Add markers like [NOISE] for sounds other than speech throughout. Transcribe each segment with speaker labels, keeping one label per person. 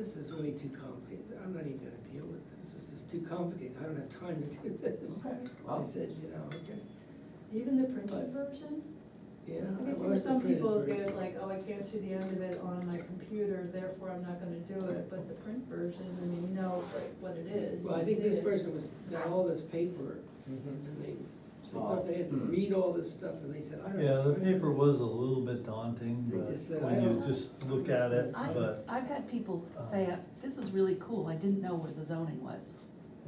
Speaker 1: gonna be too complicated, I'm not even gonna deal with this, this is too complicated, I don't have time to do this.
Speaker 2: Okay.
Speaker 1: I said, you know, okay,
Speaker 2: Even the printed version?
Speaker 1: yeah.
Speaker 2: I
Speaker 1: I like
Speaker 2: can see for
Speaker 1: Uh, the
Speaker 2: some
Speaker 1: printed
Speaker 2: people, they're
Speaker 1: version.
Speaker 2: like, oh, I can't see the end of it on my computer, therefore I'm not gonna do it, but the print version, I mean, you know what it is. you
Speaker 1: Well, I
Speaker 2: can
Speaker 1: think
Speaker 2: see
Speaker 1: this
Speaker 2: it.
Speaker 1: person was, got all this paper,
Speaker 3: Mm-hmm.
Speaker 1: and they, they thought they had to
Speaker 3: Oh.
Speaker 1: read all this stuff, and they said, I don't.
Speaker 4: Yeah,
Speaker 1: know,
Speaker 4: the
Speaker 1: I don't
Speaker 4: paper
Speaker 1: know."
Speaker 4: was a little bit daunting,
Speaker 1: They
Speaker 4: but
Speaker 1: just said,
Speaker 4: when
Speaker 1: "I
Speaker 4: you
Speaker 1: don't
Speaker 4: just look at it,
Speaker 5: I,
Speaker 4: but,
Speaker 5: I've had people say,
Speaker 4: Uh-huh.
Speaker 5: uh, this is really cool, I didn't know where the zoning was.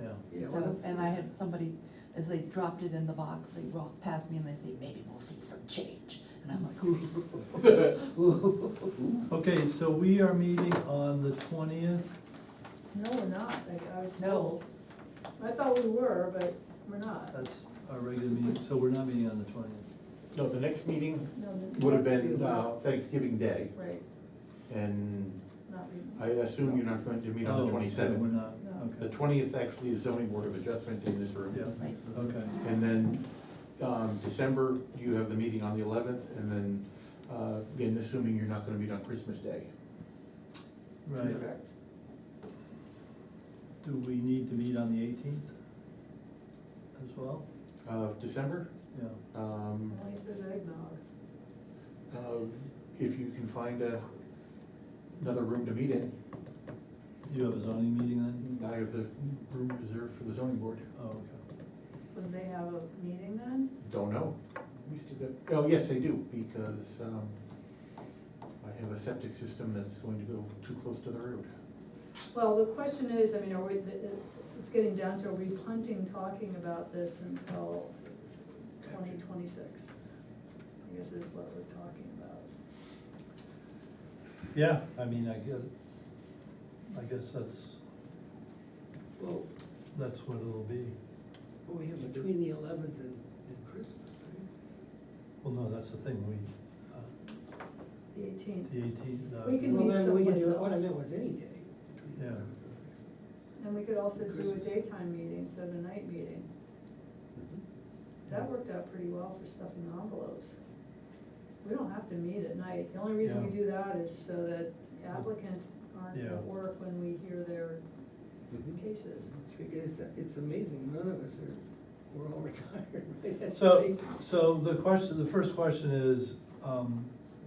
Speaker 4: yeah.
Speaker 1: Yeah, well,
Speaker 5: So,
Speaker 1: that's-
Speaker 5: and I had somebody, as they dropped it in the box, they walked past me and they say, maybe we'll see some change. And I'm like, ooh. Ooh.
Speaker 4: Okay, so we are meeting on the twentieth,
Speaker 2: No, we're not, like, I was
Speaker 5: No.
Speaker 2: told. I thought we were, but we're not.
Speaker 1: Uh,
Speaker 4: that's our regular meeting, so we're not meeting on the twentieth.
Speaker 3: No, the next meeting
Speaker 2: No, the-
Speaker 3: would have been uh, Thanksgiving Day,
Speaker 2: Right,
Speaker 3: and
Speaker 2: not we,
Speaker 3: I assume you're not going to meet on the
Speaker 4: Oh, We're
Speaker 3: twenty-seventh.
Speaker 4: not,
Speaker 2: No.
Speaker 3: The
Speaker 4: okay,
Speaker 3: twentieth actually is zoning board of adjustment in this room.
Speaker 4: yeah,
Speaker 5: Right.
Speaker 4: okay.
Speaker 3: And then, um, December, you have the meeting on the eleventh, and then, uh, again, assuming you're not gonna meet on Christmas Day.
Speaker 4: Right, do we need to meet on the eighteenth as well?
Speaker 3: Uh, December,
Speaker 4: Yeah,
Speaker 3: um,
Speaker 2: only if there's eggnog.
Speaker 3: uh, if you can find a, another room to meet in,
Speaker 4: you have a zoning meeting then?
Speaker 3: I have the room reserved for the zoning board.
Speaker 1: Mm-hmm.
Speaker 4: Oh, okay,
Speaker 2: Would they have a meeting then?
Speaker 3: Don't know. We still got, oh, yes, they do, because, um, I have a septic system that's going to go too close to the road.
Speaker 2: Well, the question is, I mean, are we, it's getting down to, are we punting talking about this until twenty twenty-six? I guess is what we're talking about.
Speaker 4: yeah, I mean, I guess, I guess that's,
Speaker 1: Well,
Speaker 4: that's what it'll be.
Speaker 1: what we have between the eleventh and, and Christmas, right?
Speaker 4: Well, no, that's the thing, we, uh,
Speaker 2: The eighteenth,
Speaker 4: the eighteenth, the.
Speaker 2: We can
Speaker 1: Well,
Speaker 2: meet
Speaker 1: then we can do it.
Speaker 2: someplace
Speaker 1: What I
Speaker 2: else.
Speaker 1: meant was any day. between the
Speaker 4: Yeah.
Speaker 1: 11th and 16th.
Speaker 2: and we could also do a
Speaker 1: Christmas.
Speaker 2: daytime meeting instead of a night meeting. That worked out pretty well for stuffing envelopes. We don't have to meet at night, the only reason we
Speaker 4: Yeah.
Speaker 2: do that is so that applicants aren't
Speaker 4: Yeah.
Speaker 2: at work when we hear their cases.
Speaker 1: Because it's, it's amazing, none of us are, we're all [LAUGHS] retired, right? That's
Speaker 4: So,
Speaker 1: amazing.
Speaker 4: so the question, the first question is, um,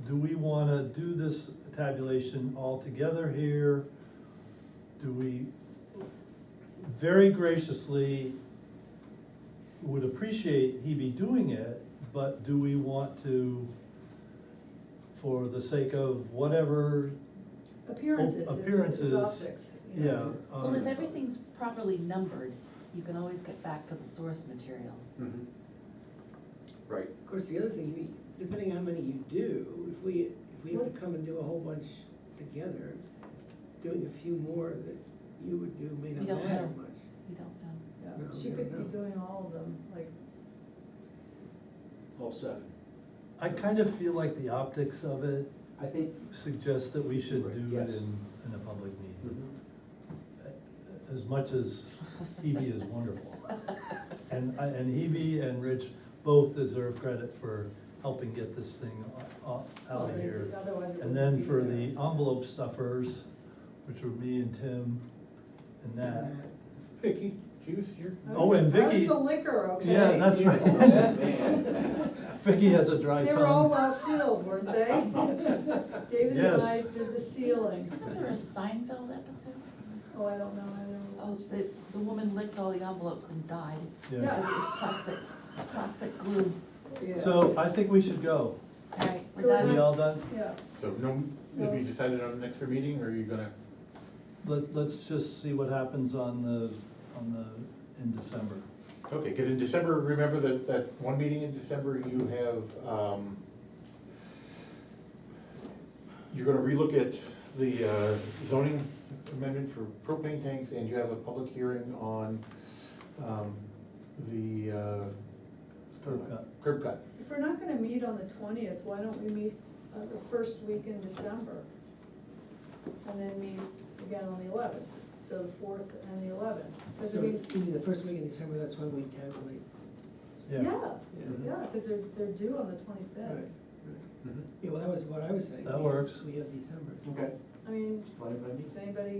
Speaker 4: do we wanna do this tabulation all together here? Do we, very graciously, would appreciate he be doing it, but do we want to, for the sake of whatever,
Speaker 2: Appearances, it's- it's
Speaker 4: Oh, appearances,
Speaker 2: optics. you know.
Speaker 4: yeah. um,
Speaker 5: Well, if everything's properly numbered, you can always get back to the source material.
Speaker 3: Mm-hmm. Right.
Speaker 1: Of course, the other thing, we, depending on how many you do, if we, if we have to come and do a whole bunch together, doing a few more that you would do may
Speaker 5: We
Speaker 1: not
Speaker 5: don't
Speaker 1: matter
Speaker 5: know.
Speaker 1: much.
Speaker 5: You don't know.
Speaker 2: Yeah,
Speaker 1: No,
Speaker 2: she
Speaker 1: no,
Speaker 2: could
Speaker 1: no.
Speaker 2: be doing all of them, like,
Speaker 6: All seven.
Speaker 4: I kind of feel like the optics of it
Speaker 6: I think,
Speaker 4: suggests that we should
Speaker 6: Right,
Speaker 4: do it
Speaker 6: yes.
Speaker 4: in, in a public meeting.
Speaker 3: Mm-hmm.
Speaker 4: as much as Hebe E
Speaker 5: [LAUGHS]
Speaker 4: is wonderful. And, I- and Hebe and Rich both deserve credit for helping get this thing o- o- out of here.
Speaker 2: otherwise Oh, it wouldn't
Speaker 4: And then
Speaker 2: be
Speaker 4: for
Speaker 2: there.
Speaker 4: the envelope stuffers, which were me and Tim and Nat.
Speaker 3: Vicky, juice here?
Speaker 2: I
Speaker 4: oh,
Speaker 2: was-
Speaker 4: and
Speaker 2: I was
Speaker 4: Vicky-
Speaker 2: the liquor, okay?
Speaker 4: Yeah, that's right.
Speaker 1: [LAUGHS]
Speaker 4: [LAUGHS] Vicky has a dry
Speaker 2: They were all uh,
Speaker 4: tongue.
Speaker 2: well sealed, weren't
Speaker 4: [LAUGHS]
Speaker 2: they? David and I
Speaker 4: Yes.
Speaker 2: did the sealing.
Speaker 5: Isn't there a Seinfeld episode?
Speaker 2: Oh, I don't know, I don't
Speaker 5: Oh,
Speaker 2: know.
Speaker 5: the, the woman licked all the envelopes and died
Speaker 4: Yeah.
Speaker 5: because it was toxic, toxic glue.
Speaker 1: [LAUGHS] Yeah.
Speaker 4: So I think we should go.
Speaker 5: All right, we're
Speaker 2: So
Speaker 5: done.
Speaker 4: We all done?
Speaker 2: Yeah,
Speaker 3: So no, have you decided on the next meeting, or are you gonna,
Speaker 4: Let, let's just see what happens on the, on the, in December.
Speaker 3: okay, because in December, remember that, that one meeting in December, you have, um, you're gonna relook at the uh, zoning amendment for propane tanks, and you have a public hearing on, um, the, uh,
Speaker 4: Curb cut.
Speaker 3: Curb cut.
Speaker 2: if we're not gonna meet on the twentieth, why don't we meet uh, the first week in December? And then meet again on the eleventh, so the fourth and the eleventh. Because
Speaker 1: So,
Speaker 2: we,
Speaker 1: maybe the first week in December, that's when we calculate.
Speaker 4: Yeah.
Speaker 2: yeah,
Speaker 1: Yeah.
Speaker 2: yeah, because they're, they're due on the twenty-fifth.
Speaker 1: Right. Mm-hmm. Yeah, well, that was what I was saying.
Speaker 4: That
Speaker 1: We-
Speaker 4: works.
Speaker 1: We have December.
Speaker 6: Okay,
Speaker 2: I mean,
Speaker 6: fine by me.
Speaker 2: does anybody